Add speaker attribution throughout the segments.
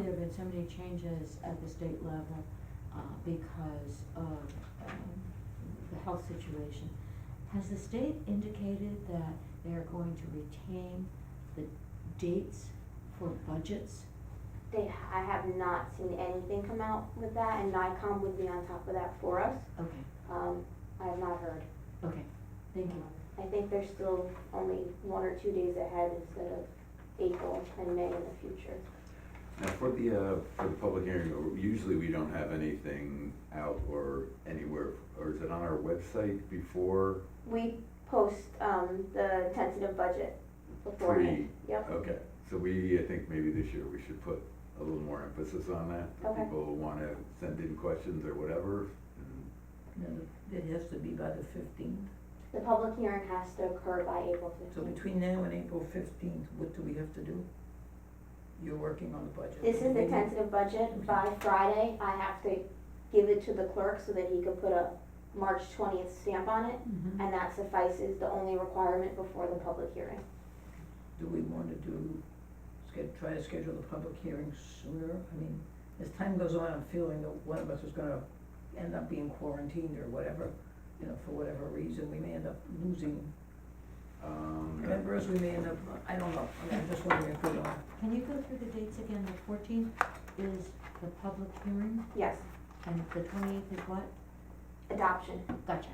Speaker 1: that so many changes at the state level, uh, because of, um, the health situation. Has the state indicated that they are going to retain the dates for budgets?
Speaker 2: They, I have not seen anything come out with that, and NICOM would be on top of that for us.
Speaker 1: Okay,
Speaker 2: Um, I have not heard.
Speaker 1: okay, thank you.
Speaker 2: I think they're still only one or two days ahead instead of April and May in the future.
Speaker 3: Now, for the, uh, for the public hearing, or- usually we don't have anything out or anywhere, or is it on our website before?
Speaker 2: We post, um, the tentative budget beforehand. Yep,
Speaker 3: Okay, so we, I think maybe this year we should put a little more emphasis on that. If
Speaker 2: Okay.
Speaker 3: people wanna send in questions or whatever, and
Speaker 4: No, It has to be by the fifteenth,
Speaker 2: the public hearing has to occur by April
Speaker 4: so
Speaker 2: fifteenth.
Speaker 4: between now and April fifteenth, what do we have to do? You're working on the budget.
Speaker 2: This is the
Speaker 4: Maybe-
Speaker 2: tentative budget. By Friday, I have to give it to the clerk so that he can put a March twentieth stamp on it.
Speaker 4: Mm-hmm.
Speaker 1: Mhm.
Speaker 2: And that suffices the only requirement before the public hearing.
Speaker 4: Do we wanna do, sched- try to schedule the public hearing sooner? I mean, as time goes on, I'm feeling that one of us is gonna end up being quarantined or whatever, you know, for whatever reason, we may end up losing
Speaker 3: Um,
Speaker 4: members, we may end up, I don't know, I mean, I'm just wondering if we are.
Speaker 1: Can you go through the dates again? The fourteenth is the public hearing,
Speaker 2: Yes,
Speaker 1: and the twenty-eighth is what?
Speaker 2: adoption.
Speaker 1: Gotcha.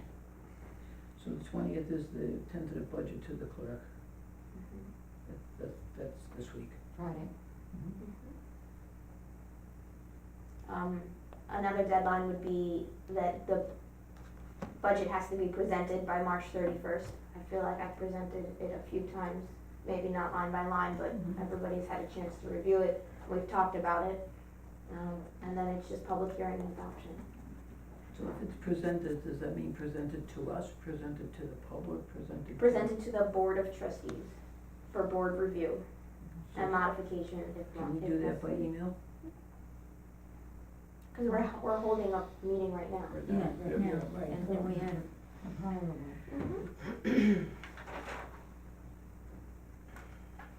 Speaker 4: So the twentieth is the tentative budget to the clerk, Mm-hmm. that, that, that's this week.
Speaker 1: Friday.
Speaker 2: Um, another deadline would be that the budget has to be presented by March thirty-first. I feel like I presented it a few times, maybe not line by line, but
Speaker 4: Mhm.
Speaker 2: everybody's had a chance to review it, we've talked about it. Um, and then it's just public hearing and adoption.
Speaker 4: So if it's presented, does that mean presented to us, presented to the public, presented? to-
Speaker 2: Presented to the Board of Trustees for board review
Speaker 4: So
Speaker 2: and modification if not.
Speaker 4: Can we
Speaker 2: if
Speaker 4: do that by e-
Speaker 2: necessary.
Speaker 4: email?
Speaker 2: Cause we're, we're holding a meeting right now.
Speaker 3: Right now,
Speaker 1: Yeah,
Speaker 3: yeah.
Speaker 1: right now,
Speaker 4: right.
Speaker 1: and then we had a prior one.
Speaker 2: Mm-hmm.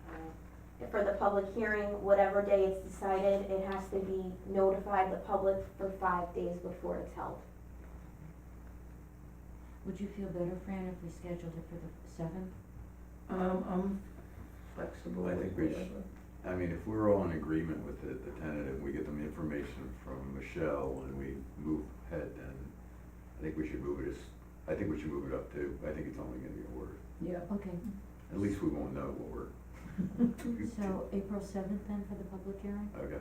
Speaker 2: Uh, For the public hearing, whatever day it's decided, it has to be notified the public for five days before it's held.
Speaker 1: Would you feel better, Fran, if we scheduled it for the seventh?
Speaker 4: Um, I'm flexible
Speaker 3: I
Speaker 4: with
Speaker 3: think we sh-
Speaker 4: whatever.
Speaker 3: I mean, if we're all in agreement with it, the tentative, we get them information from Michelle and we move ahead, then I think we should move it as, I think we should move it up to, I think it's only gonna get worse.
Speaker 4: Yeah,
Speaker 1: Okay,
Speaker 3: At least we won't know what we're.
Speaker 1: so April seventh then for the public hearing?
Speaker 3: Okay,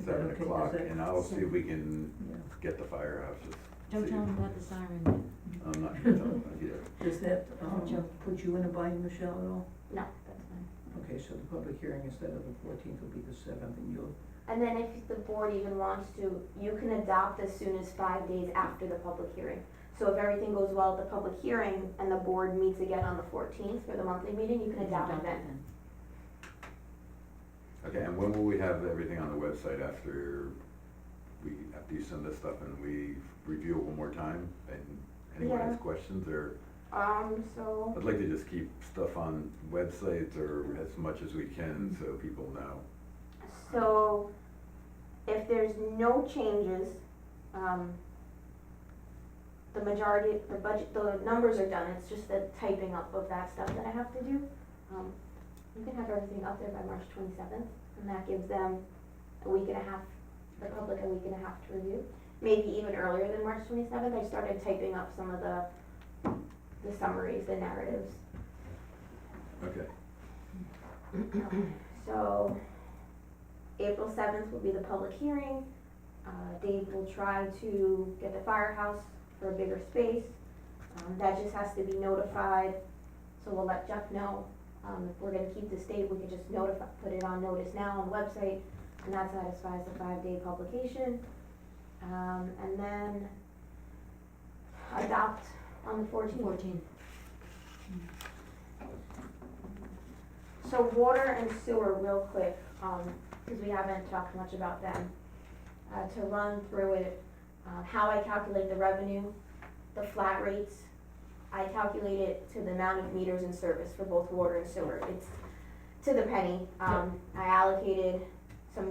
Speaker 4: Is that
Speaker 3: seven
Speaker 4: okay? Is
Speaker 3: o'clock,
Speaker 4: that-
Speaker 3: and I'll see if we can
Speaker 4: yeah.
Speaker 3: get the firehouses.
Speaker 1: Don't tell them about the siren yet.
Speaker 3: I'm not sure, about that either.
Speaker 4: Does that, um,
Speaker 1: Joe.
Speaker 4: put you in a bind, Michelle, at all?
Speaker 2: No, that's fine.
Speaker 4: Okay, so the public hearing instead of the fourteenth will be the seventh, and you'll,
Speaker 2: And then if the board even wants to, you can adopt as soon as five days after the public hearing. So if everything goes well at the public hearing and the board meets again on the fourteenth for the monthly meeting, you can adopt it then.
Speaker 3: Okay, and when will we have everything on the website after we, after you send us stuff and we review it one more time? And anyone has
Speaker 2: Yeah.
Speaker 3: questions, or,
Speaker 2: Um, so,
Speaker 3: I'd like to just keep stuff on websites or as much as we can, so people know.
Speaker 2: so if there's no changes, um, the majority, the budget, the numbers are done, it's just the typing up of that stuff that I have to do. Um, You can have everything up there by March twenty-seventh, and that gives them a week and a half, the public a week and a half to review. Maybe even earlier than March twenty-seventh, I started typing up some of the, the summaries, the narratives.
Speaker 3: Okay,
Speaker 2: So, April seventh will be the public hearing. Uh, Dave will try to get the firehouse for a bigger space. Um, that just has to be notified, so we'll let Jeff know. Um, if we're gonna keep this date, we can just notify, put it on notice now on the website, and that satisfies the five-day publication. Um, and then adopt on the fourteenth.
Speaker 1: Fourteenth,
Speaker 2: So water and sewer, real quick, um, cause we haven't talked much about them. Uh, to run through it, uh, how I calculate the revenue, the flat rates. I calculate it to the amount of meters in service for both water and sewer, it's to the penny. Um, I allocated